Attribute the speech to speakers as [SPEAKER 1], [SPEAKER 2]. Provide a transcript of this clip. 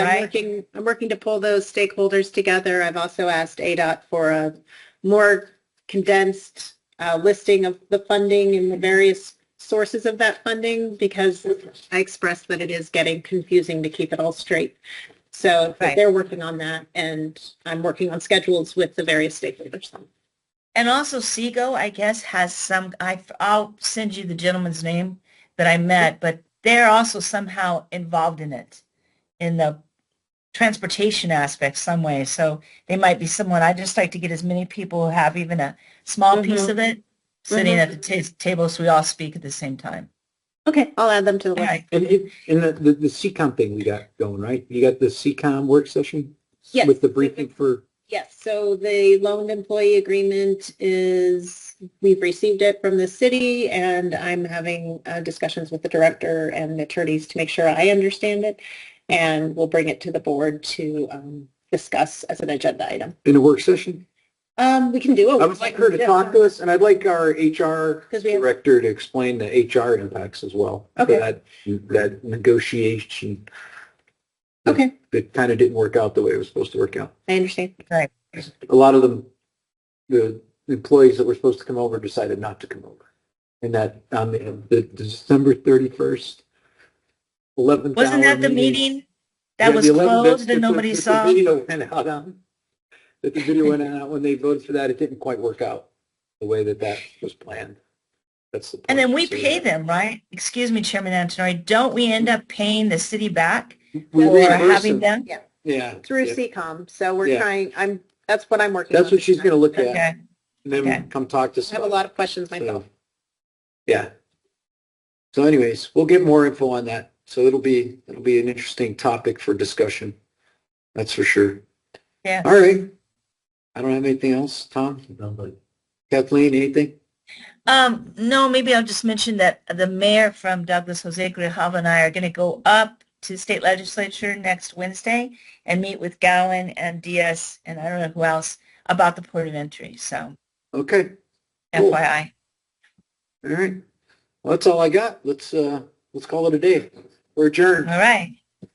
[SPEAKER 1] I'm
[SPEAKER 2] Right.
[SPEAKER 1] working, I'm working to pull those stakeholders together. I've also asked ADOT for a more condensed uh, listing of the funding and the various sources of that funding because I expressed that it is getting confusing to keep it all straight. So but
[SPEAKER 2] Right.
[SPEAKER 1] they're working on that and I'm working on schedules with the various stakeholders.
[SPEAKER 2] And also Seago, I guess, has some, I, I'll send you the gentleman's name that I met, but they're also somehow involved in it, in the transportation aspect some way. So they might be someone, I just like to get as many people who have even a small piece
[SPEAKER 3] Mm-hmm.
[SPEAKER 1] Mhm.
[SPEAKER 2] of it sitting
[SPEAKER 1] Mhm.
[SPEAKER 2] at the ta- table so we all speak at the same time.
[SPEAKER 1] Okay, I'll add them to the
[SPEAKER 2] All
[SPEAKER 1] list.
[SPEAKER 2] right.
[SPEAKER 3] And it, and the, the, the CCOM thing we got going, right? You got the CCOM work session?
[SPEAKER 1] Yes.
[SPEAKER 3] With the briefing for,
[SPEAKER 1] Yes, so the loaned employee agreement is, we've received it from the city and I'm having uh, discussions with the director and attorneys to make sure I understand it. And we'll bring it to the board to um, discuss as an agenda item.
[SPEAKER 3] in a work session?
[SPEAKER 1] Um, we can
[SPEAKER 2] Oh,
[SPEAKER 1] do it.
[SPEAKER 3] I would like her to talk to us and I'd like our HR
[SPEAKER 1] 'Cause we have-
[SPEAKER 3] director to explain the HR impacts as well. for
[SPEAKER 1] Okay.
[SPEAKER 3] That, that negotiation
[SPEAKER 1] Okay,
[SPEAKER 3] that kind of didn't work out the way it was supposed to work out.
[SPEAKER 1] I understand.
[SPEAKER 3] A lot of them, the employees that were supposed to come over decided not to come over. And that, on the, the December 31st, 11th
[SPEAKER 2] Wasn't
[SPEAKER 3] hour
[SPEAKER 2] that the meeting that
[SPEAKER 3] Yeah,
[SPEAKER 2] was
[SPEAKER 3] the 11 that's-
[SPEAKER 2] closed
[SPEAKER 3] that's
[SPEAKER 2] and
[SPEAKER 3] what-
[SPEAKER 2] nobody
[SPEAKER 3] that the
[SPEAKER 2] saw?
[SPEAKER 3] video went out on. That the video went out when they voted for that, it didn't quite work out the way that that was planned. That's the.
[SPEAKER 2] And then
[SPEAKER 3] point.
[SPEAKER 2] we
[SPEAKER 3] So,
[SPEAKER 2] pay them, right? Excuse me, Chairman Antonori, don't we end up paying the city back
[SPEAKER 3] We
[SPEAKER 2] for
[SPEAKER 3] reimburse
[SPEAKER 2] having
[SPEAKER 3] them.
[SPEAKER 2] them?
[SPEAKER 3] Yeah.
[SPEAKER 1] Through
[SPEAKER 3] yeah.
[SPEAKER 1] CCOM, so we're
[SPEAKER 3] Yeah.
[SPEAKER 1] trying, I'm, that's what I'm working on.
[SPEAKER 3] That's what she's gonna look at,
[SPEAKER 2] Okay,
[SPEAKER 3] and then
[SPEAKER 2] Okay.
[SPEAKER 3] come talk to us.
[SPEAKER 1] I have a lot of questions myself.
[SPEAKER 3] So, Yeah. So anyways, we'll get more info on that. So it'll be, it'll be an interesting topic for discussion. That's for sure.
[SPEAKER 2] yeah.
[SPEAKER 3] All right. I don't have anything else, Tom? Kathleen, anything?
[SPEAKER 2] Um, no, maybe I'll just mention that the mayor from Douglas, Jose Grijalva and I are going to go up to state legislature next Wednesday and meet with Gowan and Diaz and I don't know who else about the port of entry. So
[SPEAKER 3] Okay. Cool.
[SPEAKER 2] FYI.
[SPEAKER 3] All right. Well, that's all I got. Let's, uh, let's call it a day. We're adjourned.
[SPEAKER 2] All right.